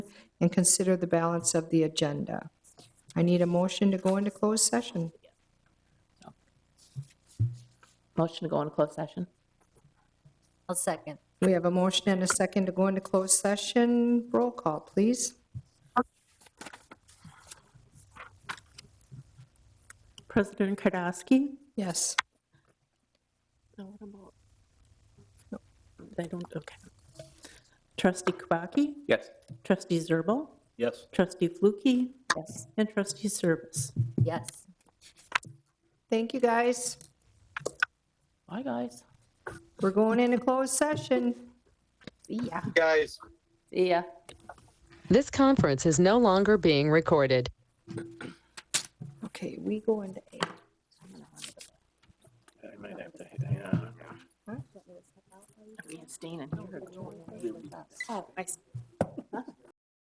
and consider the balance of the agenda. I need a motion to go into closed session. Motion to go into closed session? I'll second. We have a motion and a second to go into closed session. Roll call, please. President Kardasky? Yes. No, what about? No, They don't, okay. Trustee Kubaki? Yes. Trustee Zerbal? Yes. Trustee Flukie? Yes. And Trustee Service? Yes. Thank you, guys. Bye, guys. We're going into closed session. Yeah. Guys. Yeah. This conference is no longer being recorded. Okay, we go into A. I might have to, yeah. Me and Stan in here. Oh, I see.